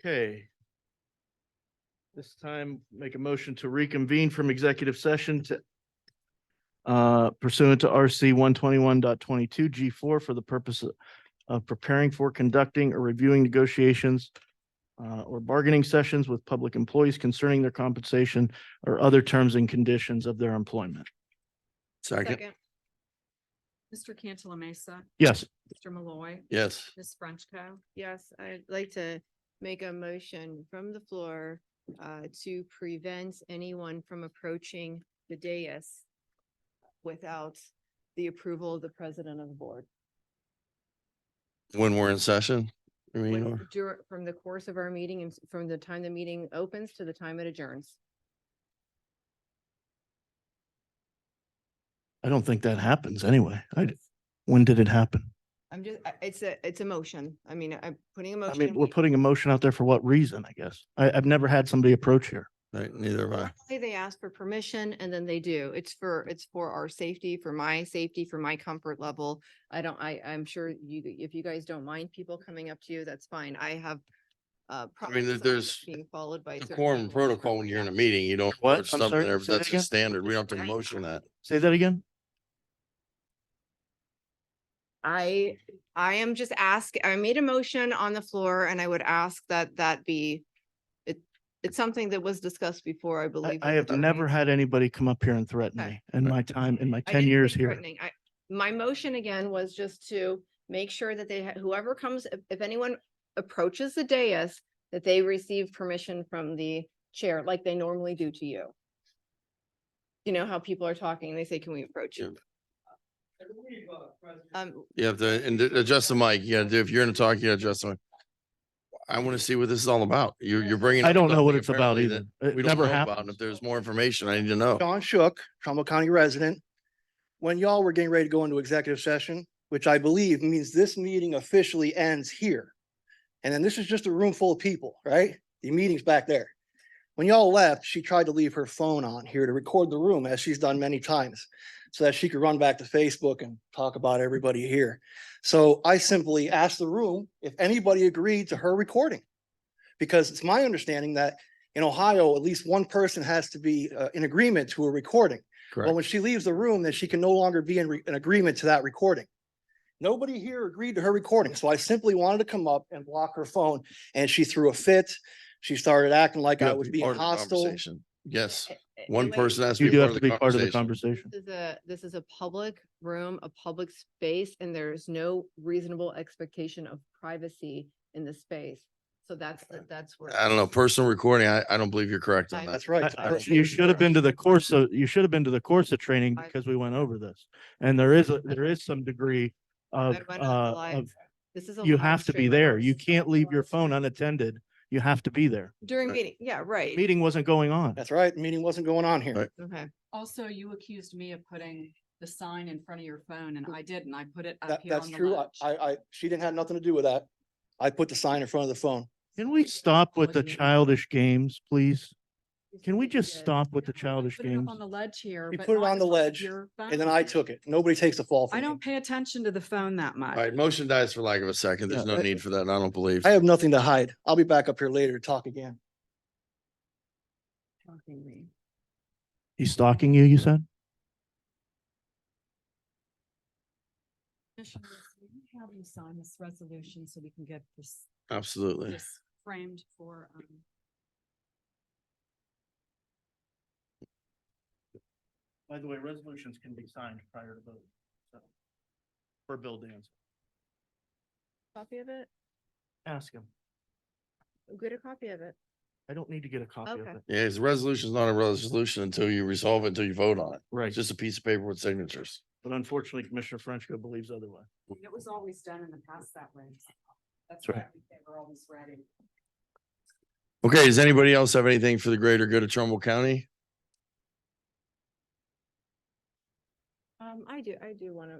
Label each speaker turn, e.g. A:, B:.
A: Okay. This time, make a motion to reconvene from executive session to uh, pursuant to RC one twenty-one G four for the purpose of- of preparing for conducting or reviewing negotiations uh, or bargaining sessions with public employees concerning their compensation or other terms and conditions of their employment.
B: Second,
C: Mr. Cantala Mesa,
A: Yes,
C: Mr. Malloy,
B: yes,
C: Ms. Frenchco.
D: Yes, I'd like to make a motion from the floor uh, to prevent anyone from approaching the dais without the approval of the president of the board.
B: when we're in session, I mean,
D: When-
B: or,
D: dur- From the course of our meeting and s- from the time the meeting opens to the time it adjourns.
A: I don't think that happens anyway. I, when did it happen?
D: I'm just, I- it's a, it's a motion. I mean, I'm putting a
A: I
D: motion.
A: mean, we're putting a motion out there for what reason, I guess. I, I've never had somebody approach here.
B: right, neither of I.
D: Say They ask for permission and then they do. It's for, it's for our safety, for my safety, for my comfort level. I don't, I, I'm sure you, if you guys don't mind people coming up to you, that's fine. I have. uh problems
B: there-
D: with
B: there's
D: Being followed by. certain
B: Decorum
D: people.
B: protocol when you're in a meeting, you don't.
A: What?
B: approach
A: I'm
B: something
A: sorry,
B: there,
A: say
B: but
A: that
B: That's
A: again?
B: a standard. We don't have to motion that.
A: Say that again?
D: I, I am just ask, I made a motion on the floor and I would ask that that be. It, it's something that was discussed before, I
A: I,
D: believe.
A: I have
B: Uh,
D: with the
A: never
D: raise.
A: had anybody come up here and threaten
D: Okay.
A: me in my time, in my
D: I
A: ten
D: didn't
A: years
D: say
A: here.
D: threatening. I, my motion again was just to make sure that they, ha- whoever comes, if- if anyone approaches the dais, that they receive permission from the chair like they normally do to you. You know how people are talking, they say, can we approach you? Um,
B: You have to, and th- adjust the mic. You gotta do, if you're gonna talk, you gotta adjust the mic. I want to see what this is all about. You're, you're bringing.
A: I
B: up
A: don't know
B: something
A: what it's about
B: apparently
A: either.
B: that
A: It
B: We don't
A: never
B: know about. and
A: happened.
B: If there's more information, I need to know.
E: John Shook, Trumbull County resident. When y'all were getting ready to go into executive session, which I believe means this meeting officially ends here. And then this is just a room full of people, right? The meeting's back there. When y'all left, she tried to leave her phone on here to record the room as she's done many times so that she could run back to Facebook and talk about everybody here. So I simply asked the room if anybody agreed to her recording. Because it's my understanding that in Ohio, at least one person has to be uh, in agreement to a recording. Well,
B: Correct.
E: when she leaves the room, then she can no longer be in, re- in agreement to that recording. Nobody here agreed to her recording, so I simply wanted to come up and block her phone, and she threw a fit. She started acting like
B: You
E: I
B: have to
E: was
B: be part
E: being
B: of the
E: hostile.
B: conversation. Yes,
D: a-
B: one
D: anyway,
B: person has to
A: You
B: be
A: do
B: part
A: have
B: of
A: to
B: the
A: be part of the
B: conversation.
A: conversation.
D: This is a, this is a public room, a public space, and there's no reasonable expectation of privacy in the space. So that's, that's where.
B: I don't know, personal recording, I, I don't believe you're correct on
D: I-
B: that.
E: That's right.
A: I-
E: it's
A: I-
E: personal
A: You should have been to the course of, you should have been to the course of training
D: I-
A: because we went over this. And there is, a there is some degree
D: I
A: of,
D: went on the
A: uh,
D: live-
A: of,
D: This is a.
A: you
D: live
A: have to be
D: stream.
A: there. You can't leave your phone unattended. You have to be there.
D: During
B: Right.
D: meeting, yeah,
A: The
D: right.
A: Meeting wasn't going on.
E: That's right. Meeting wasn't going on here.
B: Right.
D: Okay.
C: Also, you accused me of putting the sign in front of your phone and I didn't. I put it up
E: That,
C: here
E: that's
C: on the
E: true. I,
C: ledge.
E: I, I- she didn't have nothing to do with that. I put the sign in front of the phone.
A: Can we stop with the
C: Wasn't it?
A: childish games, please? Can we
D: You
A: just
D: did.
A: stop with the
C: No, I
A: childish
C: put it up
A: games?
C: On the ledge here.
E: You
C: but
E: put it
C: not
E: on
C: in
E: the
C: front of
E: ledge,
C: your
E: And then I
C: phone.
E: took it. Nobody takes the fall for
C: I
E: me.
C: don't pay attention to the phone that
B: All
C: much.
B: right, motion dies for lack of a second. There's
E: Yeah,
B: no
E: I-
B: need for that, I don't believe.
E: I have nothing to hide. I'll be back up here later to talk again.
C: Talking me.
A: He's stalking you, you said?
C: Commissioners, will you Have you sign this resolution so we can get this,
B: Absolutely.
C: this framed for, um,
A: By the way, resolutions can be signed prior to vote, so. For Bill Danz,
D: Copy of it?
A: ask him.
D: Get a copy of it.
A: I don't need to get a copy of
D: Okay.
A: it.
B: Yeah, his resolution's not a resolution until you resolve it, until you vote on it.
A: Right.
B: It's just a piece of paper with signatures.
A: But unfortunately, Commissioner Frenchco believes otherwise.
C: it was always done in the past that way. That's
A: right.
C: why they were always ready.
B: Okay, does anybody else have anything for the greater good of Trumbull County?
D: Um, I do, I do want to